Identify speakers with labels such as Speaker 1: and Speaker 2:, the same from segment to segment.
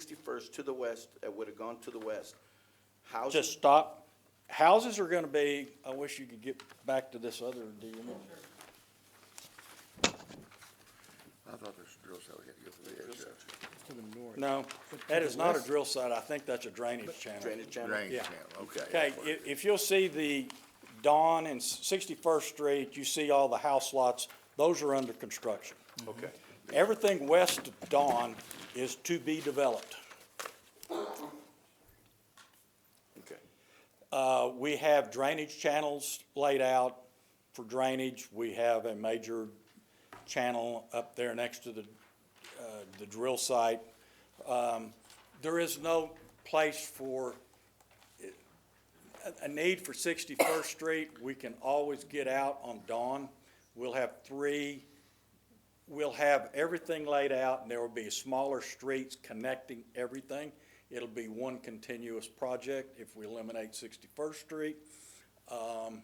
Speaker 1: 61st to the west, that would have gone to the west. Houses,
Speaker 2: Just stop. Houses are gonna be, I wish you could get back to this other deal.
Speaker 3: I thought there's a drill cell we had to go through the edge of.
Speaker 4: To the north.
Speaker 2: No, that is not a drill site. I think that's a drainage channel.
Speaker 1: drainage channel.
Speaker 3: Drainage
Speaker 2: Yeah.
Speaker 3: channel, okay.
Speaker 2: Okay, if, if you'll see the Dawn and Sixty-first Street, you see all the house lots, those are under construction.
Speaker 1: Okay.
Speaker 2: Everything west of Dawn is to be developed.
Speaker 1: Okay.
Speaker 2: Uh, we have drainage channels laid out for drainage. We have a major channel up there next to the, uh, the drill site. Um, there is no place for, eh, a, a need for Sixty-first Street. We can always get out on dawn. We'll have three, we'll have everything laid out and there will be smaller streets connecting everything. It'll be one continuous project if we eliminate Sixty-first Street. Um,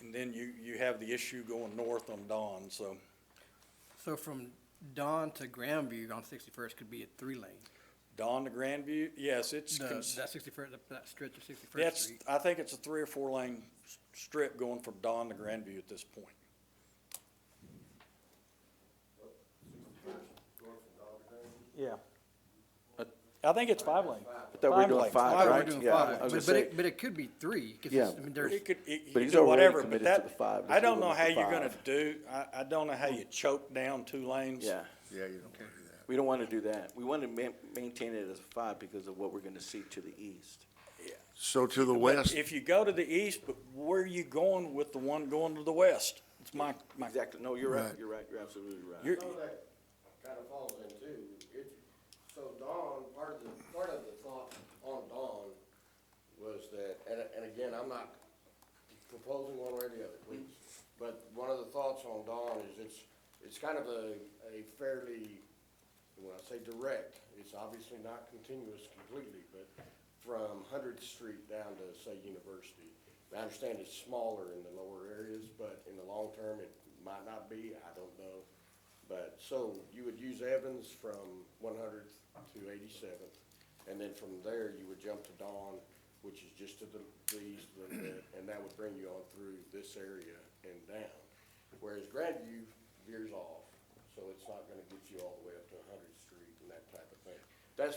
Speaker 2: And then you, you have the issue going north on Dawn, so
Speaker 4: So from Dawn to Grandview on Sixty-first could be a three-lane.
Speaker 2: Dawn to Grandview, yes, it's,
Speaker 4: The-
Speaker 2: cons-
Speaker 4: That Sixty-first, that stretch of Sixty-first
Speaker 2: that's,
Speaker 4: Street.
Speaker 2: I think it's a three or four lane s- strip going from Dawn to Grandview at this point. Yeah. I think it's five lane.
Speaker 1: thought we were doing
Speaker 2: lane.
Speaker 1: five,
Speaker 4: Why
Speaker 1: right?
Speaker 4: we're doing
Speaker 1: Yeah, I was
Speaker 4: five, but,
Speaker 1: gonna
Speaker 4: but
Speaker 1: say-
Speaker 4: it, but it could be three, 'cause
Speaker 1: Yeah.
Speaker 4: it's- I mean, there's,
Speaker 2: It could, it, you
Speaker 1: But
Speaker 2: could
Speaker 1: he's
Speaker 2: do
Speaker 1: already
Speaker 2: whatever, but
Speaker 1: committed to
Speaker 2: that,
Speaker 1: the five,
Speaker 2: I
Speaker 1: let's
Speaker 2: don't
Speaker 1: go
Speaker 2: know
Speaker 1: with
Speaker 2: how
Speaker 1: the
Speaker 2: you're
Speaker 1: five.
Speaker 2: gonna do, I, I don't know how you choke down two lanes.
Speaker 1: Yeah,
Speaker 3: Yeah, you don't wanna do that.
Speaker 1: we don't want to do that. We want to ma- maintain it as a five because of what we're going to see to the east.
Speaker 3: So to the
Speaker 2: But
Speaker 3: west,
Speaker 2: If you go to the east, but where are you going with the one going to the west? It's my, my,
Speaker 1: Exactly, no, you're right,
Speaker 3: Right.
Speaker 1: you're right, you're absolutely right.
Speaker 2: you're,
Speaker 5: Some of that kind of falls in too. It, so Dawn, part of the, part of the thought on Dawn was that, and, and again, I'm not proposing one way or the other, please. But one of the thoughts on Dawn is it's, it's kind of a, a fairly, when I say direct, it's obviously not continuous completely, but from Hundredth Street down to, say, University. And I understand it's smaller in the lower areas, but in the long term, it might not be, I don't know. But, so you would use Evans from one hundredth to eighty-seventh, and then from there, you would jump to Dawn, which is just to the, the east a little bit, and that would bring you on through this area and down. Whereas Grandview veers off, so it's not gonna get you all the way up to Hundredth Street and that type of thing. That's,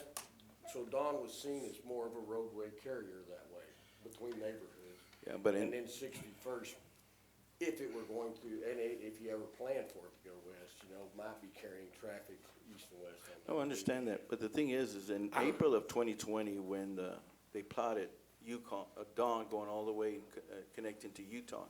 Speaker 5: so Dawn was seen as more of a roadway carrier that way, between neighborhoods.
Speaker 1: Yeah, but in-
Speaker 5: And then Sixty-first, if it were going to, and i- if you ever planned for it to go west, you know, might be carrying traffic east and west. on that.
Speaker 1: No, Oh, I understand that, but the thing is, is in April of 2020, when the, they plotted Yukon, uh, Dawn going all the way, and co- uh, connecting to Utah.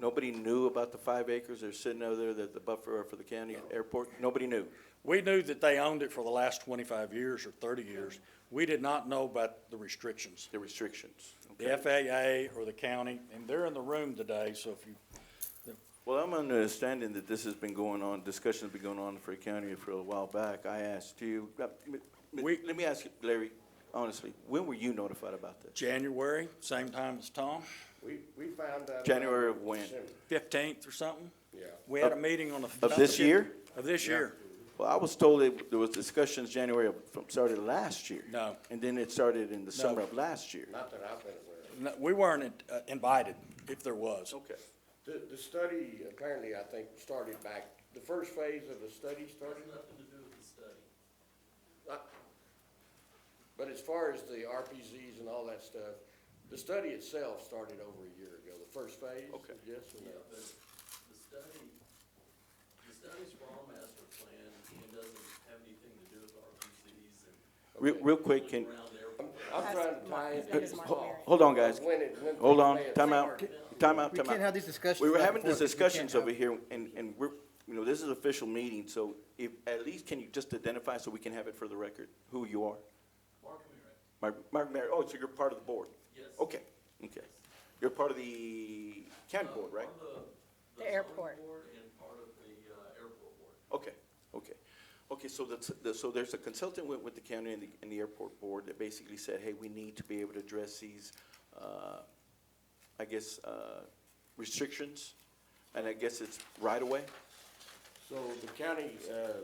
Speaker 1: Nobody knew about the five acres they're sitting over there, that the buffer for the county airport, nobody knew.
Speaker 2: we knew that they owned it for the last twenty-five years or thirty years. We did not know about the restrictions.
Speaker 1: the restrictions.
Speaker 2: The FAA or the county, and they're in the room today, so if you,
Speaker 1: Well, I'm understanding that this has been going on, discussion's been going on in Fayette County for a while back. I asked you, uh, m- m-
Speaker 2: We-
Speaker 1: let me ask you, Larry, honestly, when were you notified about this?
Speaker 2: January, same time as Tom,
Speaker 5: We, we found out.
Speaker 1: January
Speaker 5: about
Speaker 1: of when?
Speaker 5: December.
Speaker 2: fifteenth or something?
Speaker 5: Yeah.
Speaker 2: We had a meeting on the.
Speaker 1: Of this year?
Speaker 2: Of this year.
Speaker 1: Well, I was told that there was discussions January of, from, started last year.
Speaker 2: No.
Speaker 1: And then it started in the summer of last year.
Speaker 5: Not that I've been aware of.
Speaker 2: No, We weren't uh, invited, if there was.
Speaker 1: Okay.
Speaker 5: The, the study apparently, I think, started back, the first phase of the study started? Nothing to do with the study. But as far as the RPZs and all that stuff, the study itself started over a year ago, the first phase?
Speaker 1: Okay.
Speaker 5: Yes or no?
Speaker 6: Yeah, but the study, the study's raw master plan and doesn't have anything to do with RPCs and
Speaker 1: Real, real quick, can,
Speaker 6: around there.
Speaker 5: I'm trying to tie
Speaker 1: uh,
Speaker 5: in.
Speaker 1: ho- hold on, guys.
Speaker 5: When it- when
Speaker 1: Hold
Speaker 5: they
Speaker 1: on,
Speaker 5: play it.
Speaker 1: time out, time out,
Speaker 4: We
Speaker 1: time
Speaker 4: can't have
Speaker 1: out.
Speaker 4: these discussions.
Speaker 1: We were
Speaker 4: back and
Speaker 1: having these
Speaker 4: forth. We can't
Speaker 1: discussions
Speaker 4: have-
Speaker 1: over here, and, and we're, you know, this is an official meeting, so if, at least can you just identify so we can have it for the record, who you are?
Speaker 6: Mark Merritt,
Speaker 1: Mark, Mark Merritt, oh, so you're part of the board?
Speaker 6: yes.
Speaker 1: Okay, okay. You're part of the county board, right?
Speaker 6: Part of
Speaker 7: The airport.
Speaker 6: zoning board and part of the uh, airport board.
Speaker 1: Okay, okay. Okay, so that's, the- so there's a consultant went with the county and the, and the airport board that basically said, hey, we need to be able to address these, uh, I guess, uh, restrictions, and I guess it's right away?
Speaker 5: So the county, uh,